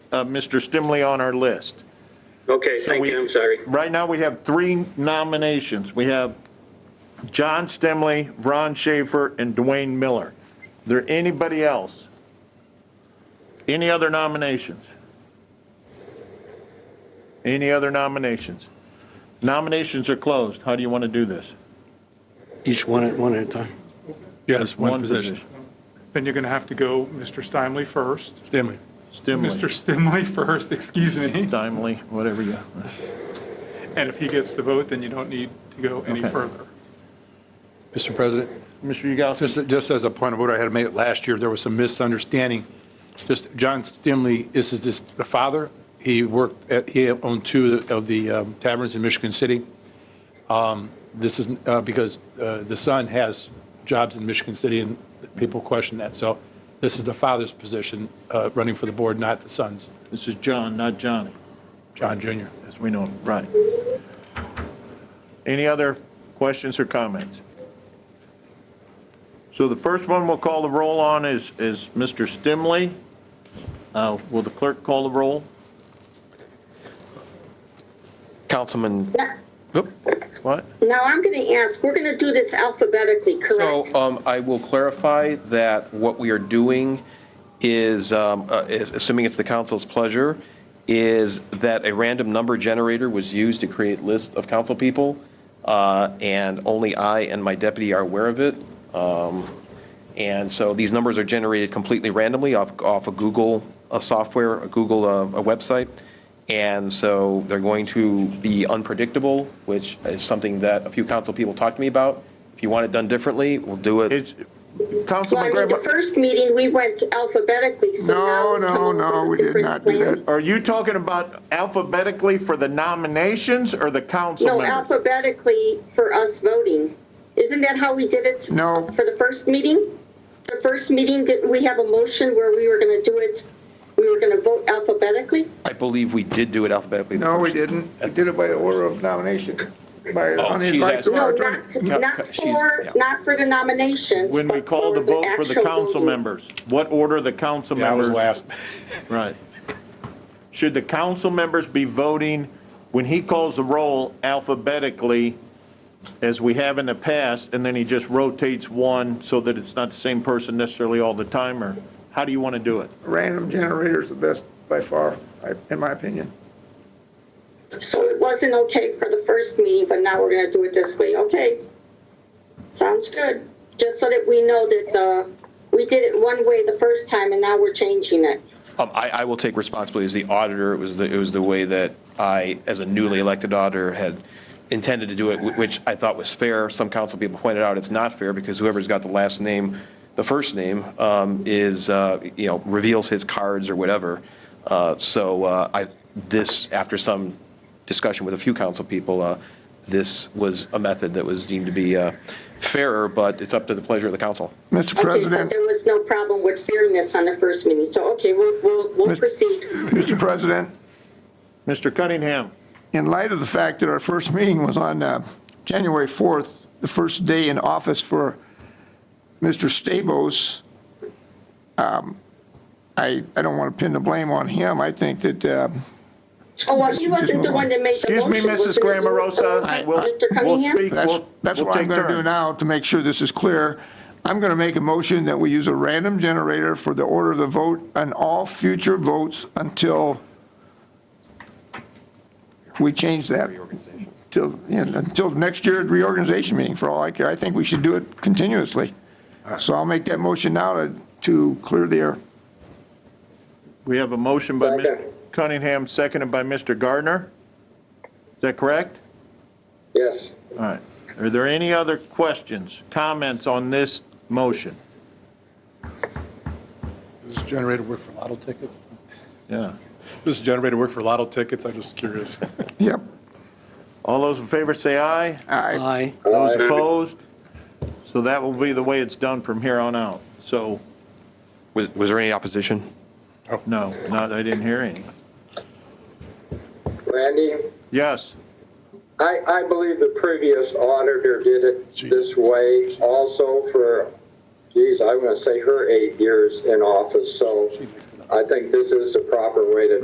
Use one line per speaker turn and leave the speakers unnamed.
uh, Mr. Stimley on our list.
Okay,
So
thank
we-
you, I'm sorry.
Right now, we have three nominations. We have John Stimley, Ron Schaefer, and Dwayne Miller. Is there anybody else? Any other nominations? Any other nominations? Nominations are closed. How do you want to do this?
Each one at one at a time.
Yes, one position.
Then you're going to have to go Mr. Stimley first.
Stanley.
Mr.
Stimley,
Stimley first, excuse me.
Stimley, whatever you,
And if he gets the vote, then you don't need to go any
Okay.
further.
Mr. President,
Mr. Yagowski.
just, just as a point of order, I had made it last year, there was some misunderstanding. Just John Stimley, this is this, the father, he worked, at- he owned two of the um, taverns in Michigan City. Um, This is uh, because uh, the son has jobs in Michigan City and people question that. So this is the father's position uh, running for the board, not the son's,
This is John, not Johnny.
John Jr.
as we know him, right. Any other questions or comments? So the first one we'll call the roll on is, is Mr. Stimley. Uh, Will the clerk call the roll?
Councilman,
What?
Now, I'm going to ask, we're going to do this alphabetically,
uh,
so
correct?
um, I will clarify that what we are doing is, um, uh, if- assuming it's the council's pleasure, is that a random number generator was used to create lists of council people, uh, and only I and my deputy are aware of it. Um, And so these numbers are generated completely randomly off, off a Google, a software, a Google, uh, a website. And so they're going to be unpredictable, which is something that a few council people talked to me about. If you want it done differently, we'll do it.
It's,
Well, I
Councilman
mean, the
Graham,
first meeting, we went alphabetically, so now.
No,
we're
no,
coming up
no,
with a
we did
different
not do
plan.
that.
are you talking about alphabetically for the nominations or the council
No,
members?
alphabetically for us voting. Isn't that how we did it?
No.
For the first meeting? The first meeting, didn't we have a motion where we were going to do it, we were going to vote alphabetically?
I believe we did do it alphabetically. the
No, we
first-
didn't. We did it by order of nomination, by, on the
she's
advice
asking-
of our
No,
attorney.
not, not
she's-
for,
yeah.
not for the nominations.
When we
but
call the vote for the
actual
council
voting.
members, what order the council
Yeah, I
members?
was last.
Right. Should the council members be voting, when he calls the roll alphabetically, as we have in the past, and then he just rotates one so that it's not the same person necessarily all the time, or how do you want to do it?
Random generator's the best by far, I- in my opinion.
So it wasn't okay for the first meeting, but now we're gonna do it this way, okay? Sounds good, just so that we know that, uh, we did it one way the first time and now we're changing it.
Um, I, I will take responsibility as the auditor. It was the, it was the way that I, as a newly elected auditor, had intended to do it, wh- which I thought was fair. Some council people pointed out it's not fair because whoever's got the last name, the first name, um, is, uh, you know, reveals his cards or whatever. Uh, So uh, I, this, after some discussion with a few council people, uh, this was a method that was deemed to be uh, fairer, but it's up to the pleasure of the council.
Mr.
Okay, but
President.
there was no problem with fairness on the first meeting, so, okay, we'll, we'll, we'll
Mis-
proceed.
Mr. President,
Mr. Cunningham,
in light of the fact that our first meeting was on uh, January 4th, the first day in office for Mr. Stabos, um, I, I don't want to pin the blame on him. I think that uh,
Oh, well, he wasn't the one that made the
excuse
motion.
me, Mrs.
wasn't it? uh,
Grammerosa, we'll,
Mr.
we'll
Cunningham?
speak,
that's,
we'll,
that's
we'll
what I'm
take
going to do
turns.
now to make sure this is clear. I'm going to make a motion that we use a random generator for the order of the vote on all future votes until we change that. Till, yeah, until next year's reorganization meeting, for all I care. I think we should do it continuously. So I'll make that motion now to, to clear the air.
We have a motion by Mr.
Second.
Cunningham, seconded by Mr. Gardner. Is that correct?
Yes.
All right. Are there any other questions, comments on this motion?
Does this generator work for lotto tickets?
Yeah.
Does this generator work for lotto tickets? I'm just curious.
Yep.
All those in favor say aye.
Aye.
Aye.
Those opposed? So that will be the way it's done from here on out. So,
Was, was there any opposition?
no, not, I didn't hear any.
Randy,
Yes,
I, I believe the previous auditor did it this way also for, geez, I'm going to say her eight years in office, so I think this is the proper way to